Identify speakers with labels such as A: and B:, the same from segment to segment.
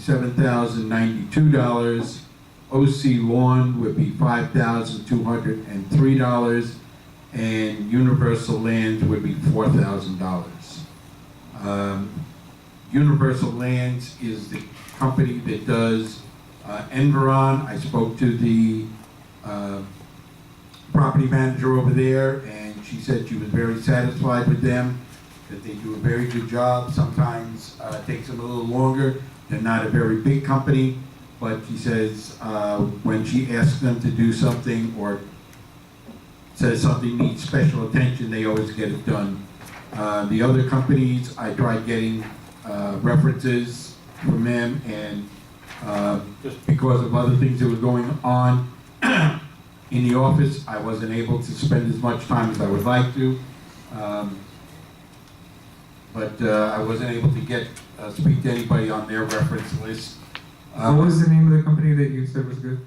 A: seven thousand ninety-two dollars. OC lawn would be five thousand two hundred and three dollars. And universal lands would be four thousand dollars. Um, Universal Lands is the company that does uh, Enveron. I spoke to the uh, property manager over there, and she said she was very satisfied with them, that they do a very good job. Sometimes uh, it takes them a little longer. They're not a very big company, but she says uh, when she asks them to do something or says something needs special attention, they always get it done. Uh, The other companies, I tried getting uh, references from them, and uh, just because of other things that were going on in the office, I wasn't able to spend as much time as I would like to. Um, But uh, I wasn't able to get, uh, speak to anybody on their reference list. Uh,
B: What was the name of the company that you said was good?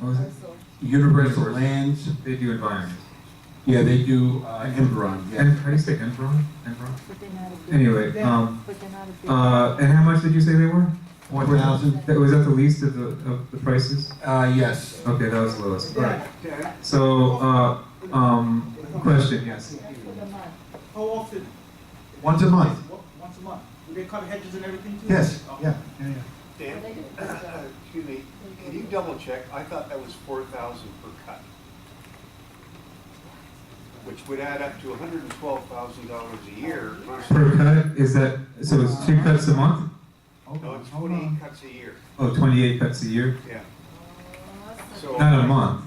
B: What was it?
A: Universal Lands,
B: They do environment.
A: yeah, they do uh, Enveron, yeah.
B: And how do you say Enron? Enron?
C: But they're not a big.
B: Anyway, um,
C: But they're not a big.
B: uh, and how much did you say they were?
A: One thousand,
B: That, was that the least of the, of the prices?
A: uh, yes.
B: Okay, that was the lowest, alright. So, uh, um, question, yes.
C: That's for the month.
D: How often?
A: Once a month.
D: What- Once a month? Do they cut hedges and everything too?
A: Yes,
D: Oh.
A: yeah, yeah, yeah.
C: They
E: Dan,
C: do a good job.
E: excuse me, can you double check? I thought that was four thousand per cut. Which would add up to hundred and twelve thousand dollars a year versus,
B: Per cut, is that, so it's two cuts a month?
A: Hold
E: no,
A: on,
E: it's
A: hold
E: twenty
A: on.
E: cuts a year,
B: Oh, twenty-eight cuts a year?
E: yeah. So-
B: Not a month.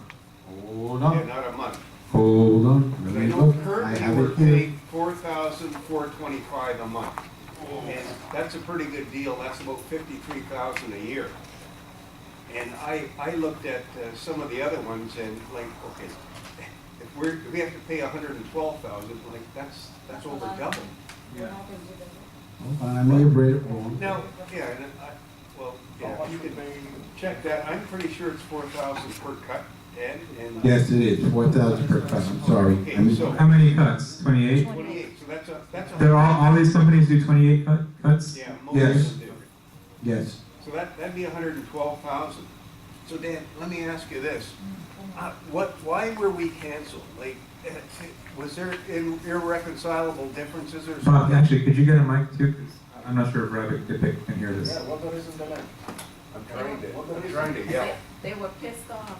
A: Hold
E: Yeah,
A: on,
E: not a month.
A: hold on.
E: But
A: Let
E: I
A: me
E: know
A: look. I
E: currently
A: have
E: we're
A: it here.
E: paying four thousand four twenty-five a month. And that's a pretty good deal, that's about fifty-three thousand a year. And I, I looked at uh, some of the other ones and like, okay, if we're, if we have to pay hundred and twelve thousand, like, that's, that's over double.
C: They're not gonna give them-
A: Hold on, I may have read it wrong.
E: Now, yeah, and I, well, yeah, you can check that, I'm pretty sure it's four thousand per cut, and, and. uh,
A: Yes, it is, four thousand per cut, I'm sorry.
E: Okay,
A: I mis-
E: so-
B: How many cuts? Twenty-eight?
E: Twenty-eight, so that's a, that's a.
B: There all, all these companies do twenty-eight cut, cuts?
E: Yeah, most
A: Yes.
E: of them do.
A: Yes,
E: So that, that'd be hundred and twelve thousand. So Dan, let me ask you this. Uh, What, why were we canceled? Like, eh, was there in- irreconcilable differences or
B: Bob,
E: something?
B: actually, could you get a mic too? 'Cause I'm not sure if Rabbit could pick, can hear this.
E: I'm trying to, I'm trying
F: Uh,
E: to yell.
C: They were pissed off.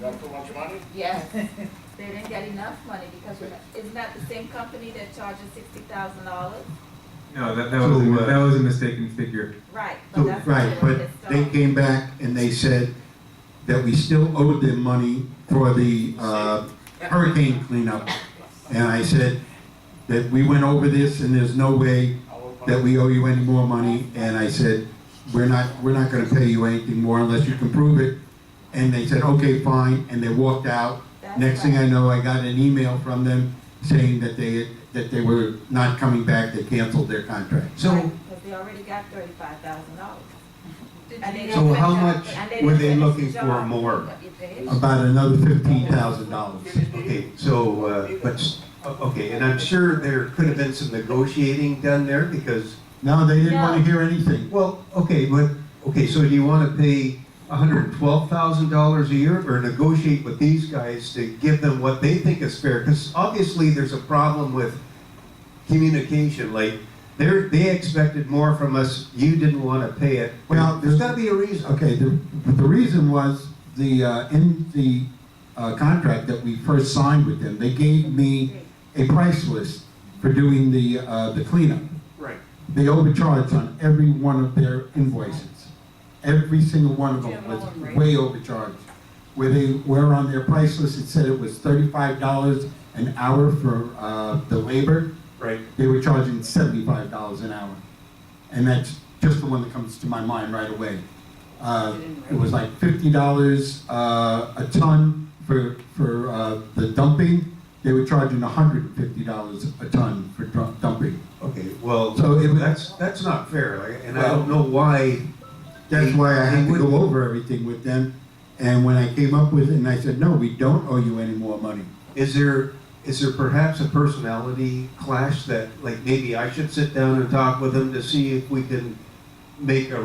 G: Got too much money?
C: Yes. They didn't get enough money because we're not- isn't that the same company that charges sixty thousand dollars?
B: No, that, that
A: So,
B: was, a-
A: uh,
B: that was a mistaken figure.
C: Right, but
A: So,
C: that's why
A: right,
C: they were
A: but
C: pissed off.
A: they came back and they said that we still owed them money for the uh, hurricane cleanup. And I said that we went over this and there's no way that we owe you any more money. And I said, we're not, we're not gonna pay you anything more unless you can prove it. And they said, okay, fine, and they walked out.
C: That's
A: Next thing
C: right.
A: I know, I got an email from them saying that they, that they were not coming back, they canceled their contract.
F: So,
C: Because they already got thirty-five thousand dollars.
F: so how much were they looking for more?
A: About another fifteen thousand dollars.
F: Okay, so, uh, but, s- o- okay, and I'm sure there could have been some negotiating done there because,
A: No, they didn't wanna
C: No.
A: hear anything.
F: well, okay, but, okay, so do you want to pay $112,000 a year or negotiate with these guys to give them what they think is fair? Because obviously there's a problem with communication, like, they're, they expected more from us, you didn't want to pay it.
A: Well,
F: Well, there's got to be a reason.
A: Okay, the, the reason was the, uh, in the, uh, contract that we first signed with them, they gave me a price list for doing the, uh, the cleanup.
E: Right.
A: They overcharged on every one of their invoices. Every single one of them was way overcharged. Where they were on their price list, it said it was thirty-five dollars an hour for, uh, the labor.
E: Right.
A: They were charging seventy-five dollars an hour. And that's just the one that comes to my mind right away. Uh, it was like fifty dollars, uh, a ton for, for, uh, the dumping. They were charging hundred and fifty dollars a ton for dru- dumping.
F: Okay, well,
A: So it was-
F: that's, that's not fair, like, and I don't know why
A: That's why I had
F: They
A: to go
F: wouldn't-
A: over everything with them. And when I came up with it, and I said, no, we don't owe you any more money.
F: Is there, is there perhaps a personality clash that, like, maybe I should sit down and talk with them to see if we can
E: make a